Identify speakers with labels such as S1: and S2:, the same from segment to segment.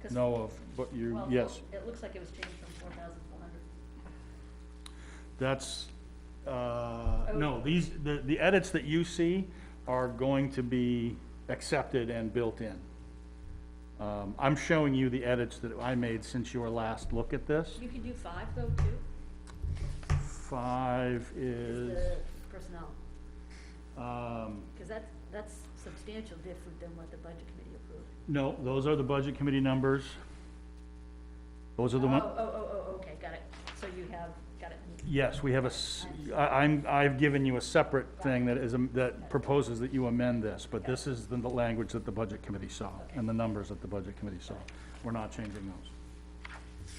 S1: 'Cause-
S2: know of, but uh, you,
S1: well,
S2: yes,
S1: It looks like it was changed from four thousand four hundred.
S2: that's,
S1: Oh.
S2: uh, no, these, the, the edits that you see are going to be accepted and built in. Um, I'm showing you the edits that I made since your last look at this.
S1: You can do five though, too,
S2: Five
S1: is
S2: is,
S1: the personnel,
S2: um,
S1: because that's, that's substantial different than what the budget committee approved.
S2: no, those are the budget committee numbers. Those are the
S1: Oh,
S2: ones.
S1: oh, oh, oh, okay, got it, so you have, got it,
S2: Yes, we have a, s- I, am I've given you a separate thing that is, am- that proposes that you amend this, but this is the the language that the Budget Committee saw, and the numbers that the Budget Committee saw. We're not changing those.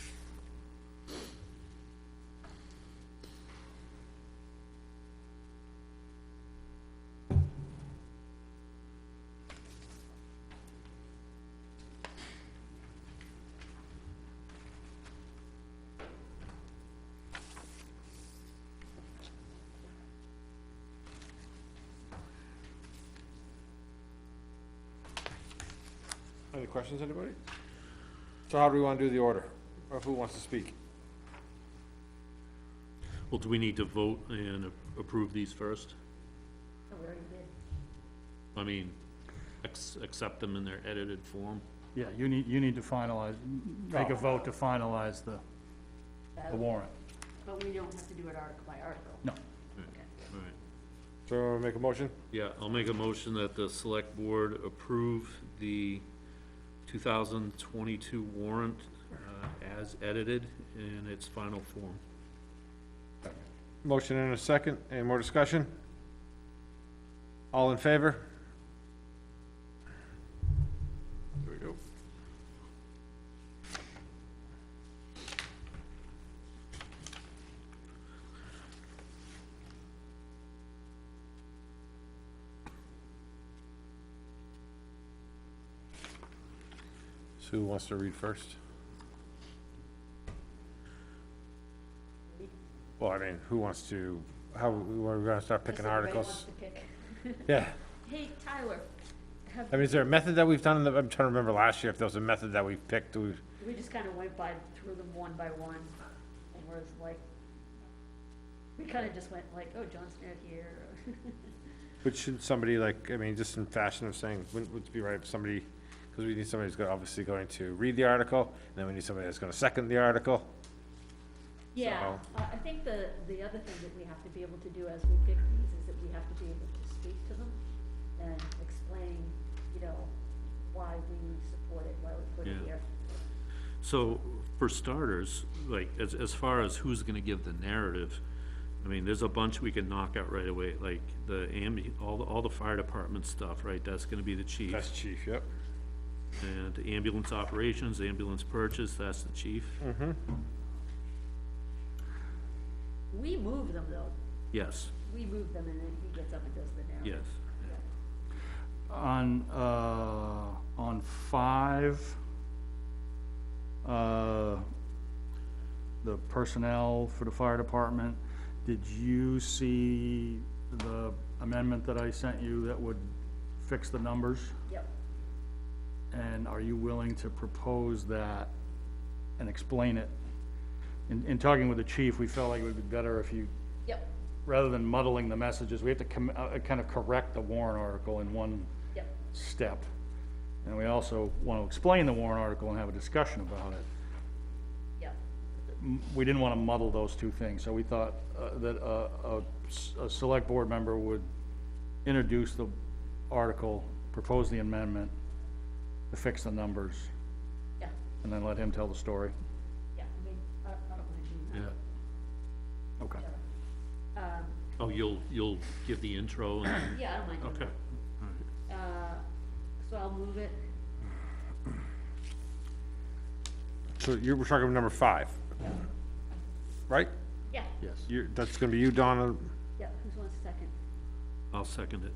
S3: Any questions, anybody? So how do we want to do the order? Or who wants to speak?
S4: Well, do we need to vote and a- approve these first?
S1: no, we already did.
S4: I mean, ex- accept them in their edited form?
S2: Yeah, you need, you need to finalize, make a vote to finalize the, the warrant.
S1: Uh, But we don't have to do it article by article.
S2: No,
S4: All right.
S3: So we make a motion?
S4: Yeah, I'll make a motion that the select board approve the two thousand twenty-two warrant, uh, as edited in its final form.
S3: Motion in a second, any more discussion? All in favor? There we go. So who wants to read first? Well, I mean, who wants to, how, we're gonna start
S1: Just
S3: picking
S1: everybody wants
S3: articles?
S1: to pick.
S3: Yeah.
S1: Hey, Tyler, have,
S3: I mean, is there a method that we've done, in the- I'm trying to remember last year if there was a method that we picked, we,
S1: we just kind of went by, through them one by one, and was like, we kind of just went like, oh, John Smith here,
S3: but should somebody like, I mean, just in fashion of saying, wouldn't, would it be right if somebody, because we need somebody who's go- obviously going to read the article, and then we need somebody that's gonna second the article.
S1: Yeah, I
S3: So-
S1: I think the, the other thing that we have to be able to do as we pick these is that we have to be able to speak to them and explain, you know, why we support it, why we put it
S4: Yeah.
S1: here.
S4: So, for starters, like, as, as far as who's gonna give the narrative, I mean, there's a bunch we can knock out right away, like the ambi, all, the all the fire department stuff, right? That's gonna be the chief.
S3: That's chief, yep.
S4: And ambulance operations, ambulance purchase, that's the chief.
S1: We move them though,
S4: Yes,
S1: we move them and then he gets up and does the narrative.
S4: yes.
S2: on, uh, on five, uh, the personnel for the fire department, did you see the amendment that I sent you that would fix the numbers?
S1: Yep,
S2: And are you willing to propose that and explain it? In, in talking with the chief, we felt like it would be better if you
S1: yep,
S2: rather than muddling the messages, we have to com- uh, kind of correct the warrant article in one
S1: yep,
S2: step. And we also want to explain the warrant article and have a discussion about it.
S1: yep.
S2: M- We didn't want to muddle those two things, so we thought uh, that uh, a s- a select board member would introduce the article, propose the amendment, to fix the numbers,
S1: Yeah,
S2: and then let him tell the story.
S1: yeah, I mean, I, I don't mind doing that.
S4: Yeah.
S2: Okay.
S1: Um,
S4: Oh, you'll, you'll give the intro and,
S1: yeah, I don't mind doing
S4: okay.
S1: that. Uh, so I'll move it,
S3: So you were talking about number five. Right?
S1: yeah,
S2: Yes.
S3: You're, that's gonna be you, Donna,
S1: yeah, who's wants a second?
S4: I'll second it.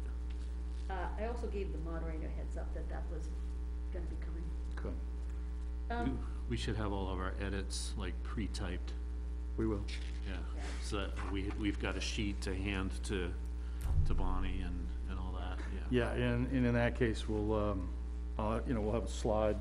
S1: Uh, I also gave the moderator a heads up that that was gonna be coming.
S2: Good.
S1: Um,
S4: We should have all of our edits like pre-typed,
S2: We will.
S4: yeah. So that we, we've got a sheet to hand to, to Bonnie and, and all that, yeah.
S2: Yeah, and, and in that case, we'll, um, uh, you know, we'll have a slide